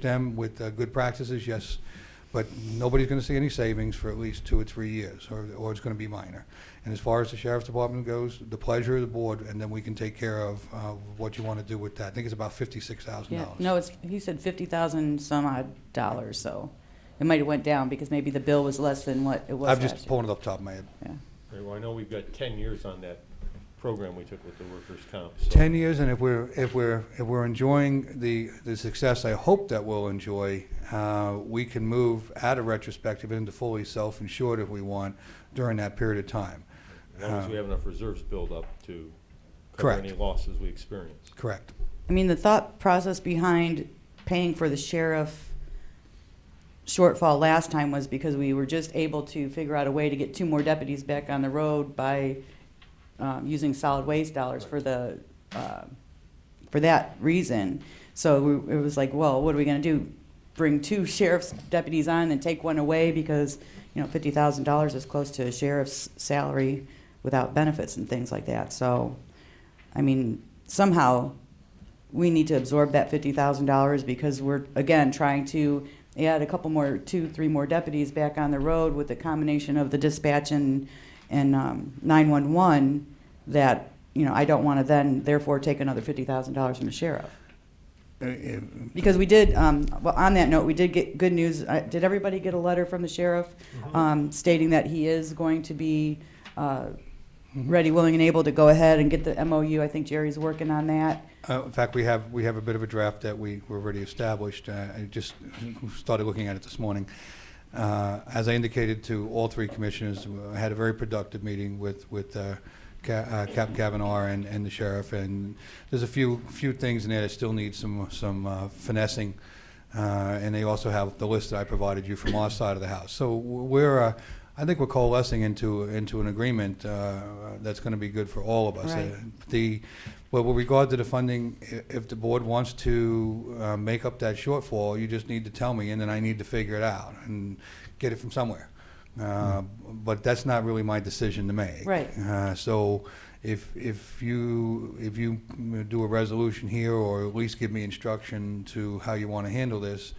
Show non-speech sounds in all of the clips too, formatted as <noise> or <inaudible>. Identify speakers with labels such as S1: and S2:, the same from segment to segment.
S1: them with uh, good practices, yes, but nobody's going to see any savings for at least two or three years, or, or it's going to be minor. And as far as the sheriff's department goes, the pleasure of the board, and then we can take care of uh, what you want to do with that. I think it's about fifty-six thousand
S2: Yeah,
S1: dollars.
S2: no, it's, he said fifty thousand some odd dollars, so it might have went down because maybe the bill was less than what it was
S1: I'm
S2: last
S1: just
S2: year.
S1: pulling it off the top of my head.
S2: Yeah.
S3: Right, Well, I know we've got 10 years on that program we took with the workers' comp. so-
S1: 10 years, and if we're, if we're, if we're enjoying the, the success I hope that we'll enjoy, uh, we can move out of retrospective into fully self-insured if we want during that period of time.
S3: As long as we have enough reserves built up to cover
S1: Correct.
S3: any losses we experience.
S1: Correct.
S2: I mean, the thought process behind paying for the sheriff shortfall last time was because we were just able to figure out a way to get two more deputies back on the road by um, using solid waste dollars for the, uh, for that reason. So we- it was like, well, what are we gonna do? Bring two <laughs> sheriff's deputies on and take one away because, you know, fifty thousand dollars is close to a sheriff's salary without benefits and things like that. So, I mean, somehow we need to absorb that fifty thousand dollars because we're again trying to add a couple more, two, three more deputies back on the road with the combination of the dispatch and and um, nine one one. That you know, I don't want to then therefore take another fifty thousand dollars from the sheriff
S1: Uh, uh,
S2: because we did. Um, well, on that note, we did get good news. Uh, did everybody get a letter from the sheriff um, stating that he is going to be? Uh, Ready, willing, and able to go ahead and get the MOU. I think Jerry's working on that.
S1: Uh, In fact, we have, we have a bit of a draft that we, were already established. Uh, I just started looking at it this morning. Uh, As I indicated to all three commissioners, uh, I had a very productive meeting with, with uh, Ca- uh, Captain Kavanaugh and, and the sheriff, and there's a few, few things in there that still need some, some uh, finessing. Uh, And they also have the list that I provided you from our side of the house. So we're, uh, I think we're coalescing into, into an agreement uh, that's going to be good for all of us.
S2: Right.
S1: Uh, the, well, with regard to the funding, i- if the board wants to uh, make up that shortfall, you just need to tell me, and then I need to figure it out and get it from somewhere. Uh, But that's not really my decision to make.
S2: Mm-hmm. Right.
S1: Uh, So if, if you, if you mm, do a resolution here, or at least give me instruction to how you want to handle this,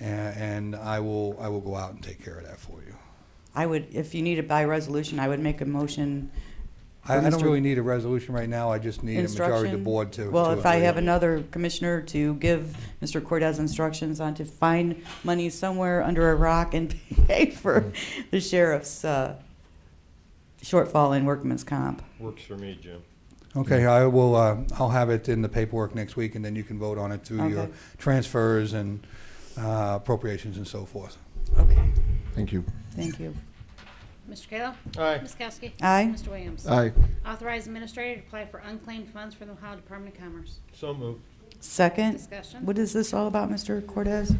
S1: a- and I will, I will go out and take care of that for you.
S2: I would, if you need it by resolution, I would make a motion.
S1: I
S2: For
S1: I don't
S2: Mr.
S1: really need a resolution right now, I just need a majority of the
S2: Instruction.
S1: board to.
S2: Well,
S1: to
S2: if I
S1: agree.
S2: have another commissioner to give Mr. Cortez instructions on to find money somewhere under a rock and <laughs> pay for the sheriff's uh, shortfall in workman's comp.
S3: Works for me, Jim.
S1: Okay, I will, uh, I'll have it in the paperwork next week, and then you can vote on it through your
S2: Okay.
S1: transfers and uh, appropriations and so forth.
S2: Okay.
S4: Thank you.
S2: Thank you.
S5: Mr. Kayla?
S3: Aye.
S5: Ms. Kowski?
S2: Aye.
S5: Mr. Williams?
S4: Aye.
S5: Authorize administrator to apply for unclaimed funds for the Ohio Department of Commerce.
S3: So moved.
S2: Second,
S5: Discussion.
S2: what is this all about, Mr. Cortez?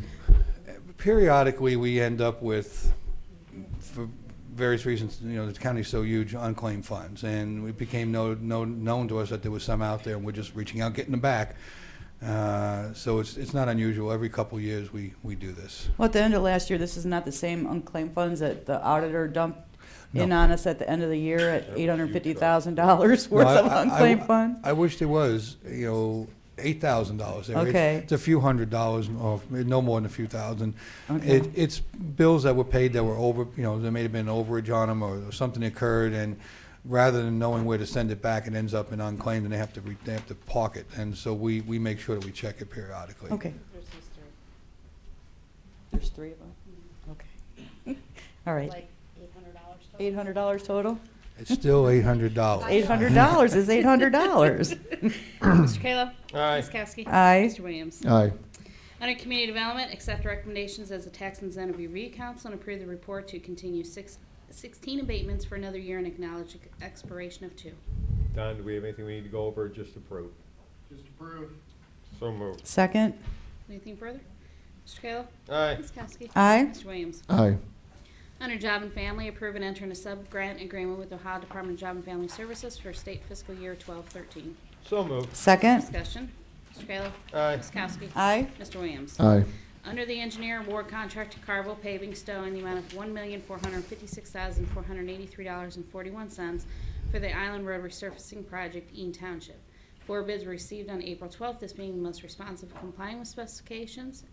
S1: Periodically, we end up with, for various reasons, you know, the county's so huge, unclaimed funds, and it became no no- known to us that there was some out there, and we're just reaching out, getting them back. Uh, So it's it's not unusual, every couple of years, we we do this.
S2: Well, at the end of last year, this is not the same unclaimed funds that the auditor dumped in
S1: No.
S2: on us at the end of the year at
S3: huge
S2: $850,000
S1: No,
S2: worth
S1: I-
S2: of
S1: I- I-
S2: unclaimed funds?
S1: I wish there was, you know, eight thousand dollars there. It's-
S2: Okay.
S1: It's a few hundred dollars, or no more than a few thousand.
S2: Okay.
S1: It, it's bills that were paid that were over, you know, there may have been an overage on them, or something occurred, and rather than knowing where to send it back, it ends up in unclaimed, and they have to, re- they have to park it. And so we, we make sure that we check it periodically.
S2: Okay. There's three of them? Okay. <laughs> All right.
S5: Mm-hmm. Like eight
S2: Eight hundred
S5: hundred dollars total?
S2: dollars total?
S1: It's still eight hundred dollars.
S2: Eight hundred dollars is eight hundred <clears throat>
S5: <laughs>
S2: dollars.
S5: Mr. Kayla?
S3: Aye.
S5: Ms. Kowski?
S2: Aye.
S5: Mr. Williams?
S4: Aye.
S5: Under Community Development, accept recommendations as a tax incentive review council and approve the report to continue six, sixteen abatements for another year and acknowledge expiration of two.
S3: Don, do we have anything we need to go over or just approve? Just approve. So moved.
S2: Second,
S5: Anything further? Mr. Kayla?
S3: Aye.
S5: Ms. Kowski?
S2: aye.
S5: Mr. Williams?
S4: Aye.
S5: Under Job and Family, approve and enter in a sub-grant agreement with Ohio Department of Job and Family Services for state fiscal year 1213.
S3: So moved.
S2: Second,
S5: Discussion. Mr. Kayla.
S3: Aye.
S5: Ms. Kowski.
S2: aye.
S5: Mr. Williams.
S4: Aye.
S5: Under the engineer award contract to Carville Paving Stowe in the amount of $1,456,483.41 for the Island Road Resurfacing Project, Eaton Township. Four bids were received on April 12th, this being the most responsive complying with specifications.